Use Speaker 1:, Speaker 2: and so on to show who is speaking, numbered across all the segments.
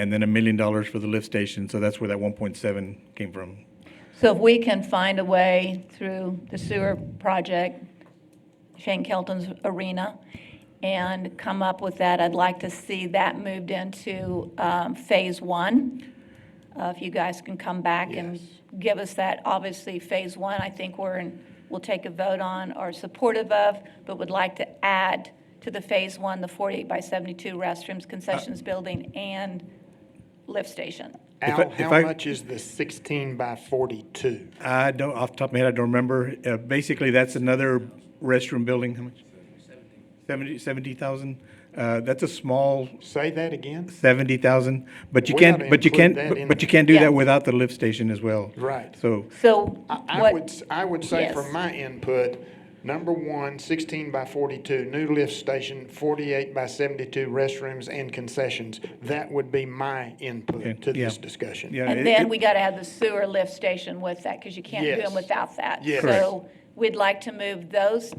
Speaker 1: and then a million dollars for the lift station. So that's where that 1.7 came from.
Speaker 2: So if we can find a way through the sewer project, Shane Kelton's arena, and come up with that, I'd like to see that moved into um, Phase One. Uh, If you guys can come back and give us that, obviously, Phase One, I think we're, in- we'll take a vote on, are supportive of, but would like to add to the Phase One, the 48 by 72 restrooms,
Speaker 3: Uh,
Speaker 2: concessions building, and lift station.
Speaker 1: If I-
Speaker 3: Al,
Speaker 1: if
Speaker 3: how
Speaker 1: I-
Speaker 3: much is the 16 by 42?
Speaker 1: I don't, off the top of my head, I don't remember. Uh, basically, that's another restroom building. How much? 70, 70,000. Uh, that's a small
Speaker 3: Say that again?
Speaker 1: 70,000, but you
Speaker 3: We ought
Speaker 1: can't,
Speaker 3: to
Speaker 1: but you
Speaker 3: include
Speaker 1: can't,
Speaker 3: that
Speaker 1: but-
Speaker 3: in
Speaker 1: but you
Speaker 3: there.
Speaker 1: can't do
Speaker 2: Yeah.
Speaker 1: that without the lift station as well.
Speaker 3: Right.
Speaker 1: So,
Speaker 2: So
Speaker 3: I-
Speaker 2: what?
Speaker 3: I would, s- I would say
Speaker 2: Yes.
Speaker 3: from my input, number one, 16 by 42, new lift station, 48 by 72 restrooms and concessions. That would be my
Speaker 1: Okay,
Speaker 3: input to this
Speaker 1: yeah.
Speaker 3: discussion.
Speaker 1: yeah. it-
Speaker 2: And then
Speaker 1: it-
Speaker 2: we got to have the sewer lift station with that, because you can't do them
Speaker 3: Yes.
Speaker 2: without that.
Speaker 3: Yes. Correct.
Speaker 2: So we'd like to move those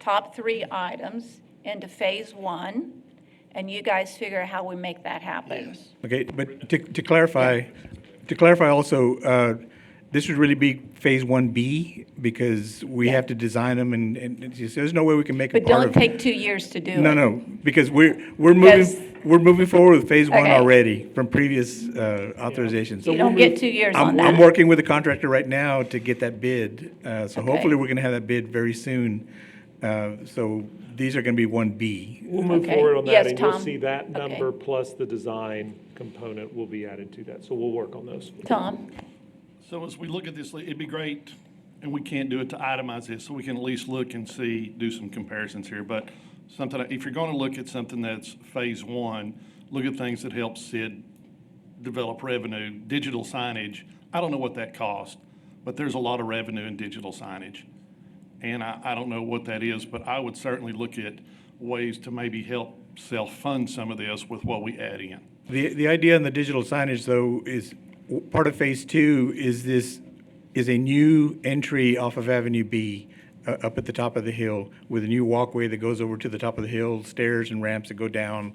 Speaker 2: top three items into phase one, and you guys figure out how we make that happen.
Speaker 3: Yes.
Speaker 1: Okay, but to, to clarify, to clarify also, uh, this would really be phase one B because we have to design them and, and it's just, there's no way we can make a
Speaker 2: But
Speaker 1: part
Speaker 2: don't
Speaker 1: of.
Speaker 2: take two years to do it.
Speaker 1: No, no, because we're, we're
Speaker 2: Because-
Speaker 1: moving, we're moving forward with phase one
Speaker 2: Okay.
Speaker 1: already from previous, uh, authorizations.
Speaker 2: You don't get two years on
Speaker 1: I'm, I'm
Speaker 2: that.
Speaker 1: working with a contractor right now to get that bid, uh, so
Speaker 2: Okay.
Speaker 1: hopefully we're gonna have that bid very soon. Uh, so these are gonna be one B.
Speaker 4: We'll move
Speaker 2: Okay.
Speaker 4: forward on
Speaker 2: Yes,
Speaker 4: that, and you'll
Speaker 2: Tom.
Speaker 4: see that
Speaker 2: Okay.
Speaker 4: number plus the design component will be added to that, so we'll work on those.
Speaker 2: Tom,
Speaker 5: So as we look at this, it'd be great, and we can't do it to itemize this, so we can at least look and see, do some comparisons here. But something, if you're gonna look at something that's phase one, look at things that help Sid develop revenue, digital signage. I don't know what that cost, but there's a lot of revenue in digital signage. And I, I don't know what that is, but I would certainly look at ways to maybe help self-fund some of this with what we add in.
Speaker 1: The, the idea on the digital signage, though, is w- part of phase two is this, is a new entry off of Avenue B, uh, up at the top of the hill, with a new walkway that goes over to the top of the hill, stairs and ramps that go down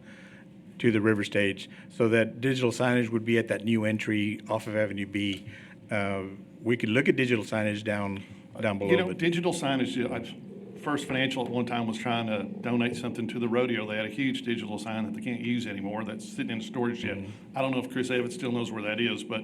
Speaker 1: to the river stage. So that digital signage would be at that new entry off of Avenue B. Uh, we could look at digital signage down, down
Speaker 5: You
Speaker 1: below,
Speaker 5: know,
Speaker 1: but
Speaker 5: digital signage, you know, I- First Financial at one time was trying to donate something to the rodeo. They had a huge digital sign that they can't use anymore that's sitting in storage yet.
Speaker 1: Mm-hmm.
Speaker 5: I don't know if Chris Evans still knows where that is, but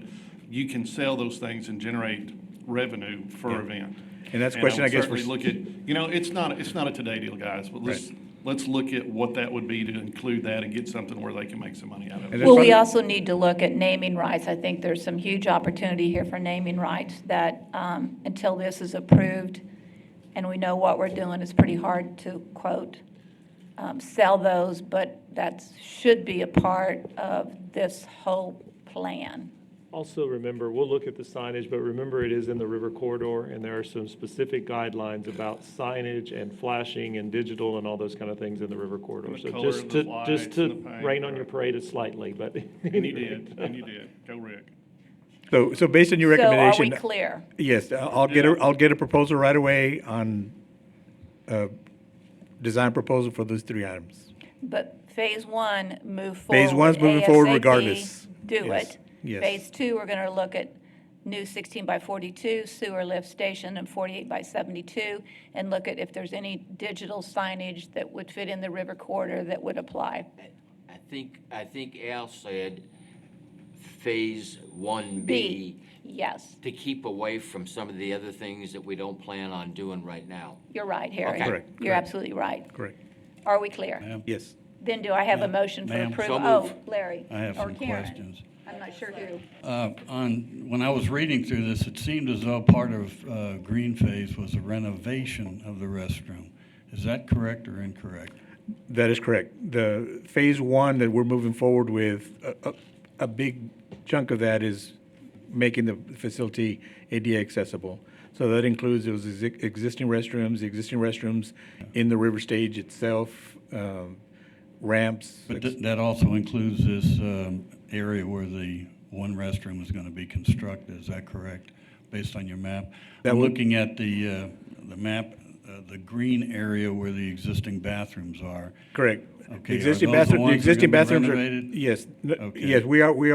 Speaker 5: you can sell those things and generate revenue for event.
Speaker 1: And that's a question I
Speaker 5: would
Speaker 1: guess we're
Speaker 5: Certainly look at, you know, it's not, it's not a today deal, guys, but let's, let's look at what that would be to include that and get something where they can make some money out of it.
Speaker 1: And
Speaker 2: well, we
Speaker 1: Fun-
Speaker 2: also need to look at naming rights. I think there's some huge opportunity here for naming rights that um, until this is approved and we know what we're doing, it's pretty hard to quote, um, sell those, but that should be a part of this whole plan.
Speaker 4: Also, remember, we'll look at the signage, but remember, it is in the river corridor, and there are some specific guidelines about signage and flashing and digital and all those kind of things in the river corridor.
Speaker 5: the
Speaker 4: So
Speaker 5: color
Speaker 4: just
Speaker 5: of
Speaker 4: to,
Speaker 5: the
Speaker 4: just
Speaker 5: lights
Speaker 4: to
Speaker 5: and the paint,
Speaker 4: rain on your
Speaker 5: right.
Speaker 4: parade slightly, but.
Speaker 5: And you did, and you did. Go Rick.
Speaker 1: so, so based on your recommendation.
Speaker 2: So are we clear?
Speaker 1: Yes, I- I'll get a, I'll get a proposal right away on, uh, design proposal for those three items.
Speaker 2: But phase one, move forward.
Speaker 1: Phase one's moving forward
Speaker 2: ASAP,
Speaker 1: regardless.
Speaker 2: Do
Speaker 1: Yes,
Speaker 2: it.
Speaker 1: yes.
Speaker 2: Phase two, we're going to look at new 16 by 42 sewer lift station and 48 by 72, and look at if there's any digital signage that would fit in the river corridor that would apply.
Speaker 6: I think, I think Al said phase
Speaker 2: B,
Speaker 6: one B
Speaker 2: yes,
Speaker 6: to keep away from some of the other things that we don't plan on doing right now.
Speaker 2: you're right, Harry.
Speaker 6: Okay.
Speaker 1: Correct,
Speaker 2: You're absolutely right.
Speaker 1: Correct.
Speaker 2: Are we clear?
Speaker 1: Yes.
Speaker 2: Then do I have a motion for
Speaker 7: Ma'am.
Speaker 2: approval?
Speaker 6: So
Speaker 2: Oh,
Speaker 6: moved.
Speaker 2: Larry.
Speaker 7: I have
Speaker 2: or
Speaker 7: some
Speaker 2: Karen.
Speaker 7: questions.
Speaker 2: I'm not sure who.
Speaker 7: Uh, On, when I was reading through this, it seemed as though part of uh, green phase was a renovation of the restroom. Is that correct or incorrect?
Speaker 1: That is correct. The phase one that we're moving forward with, a, a, a big chunk of that is making the facility ADA accessible. So that includes those exi- existing restrooms, the existing restrooms in the river stage itself, um, ramps.
Speaker 7: But th- that also includes this um, area where the one restroom is going to be constructed, is that correct, based on your map? I'm looking at the, uh, the map, uh, the green area where the existing bathrooms are.
Speaker 1: Correct. The
Speaker 7: Okay, are
Speaker 1: existing
Speaker 7: those the
Speaker 1: bathroom,
Speaker 7: ones
Speaker 1: the
Speaker 7: that are
Speaker 1: existing
Speaker 7: gonna be
Speaker 1: bathrooms are,
Speaker 7: renovated?
Speaker 1: yes, n-
Speaker 7: Okay.
Speaker 1: yes, we are, we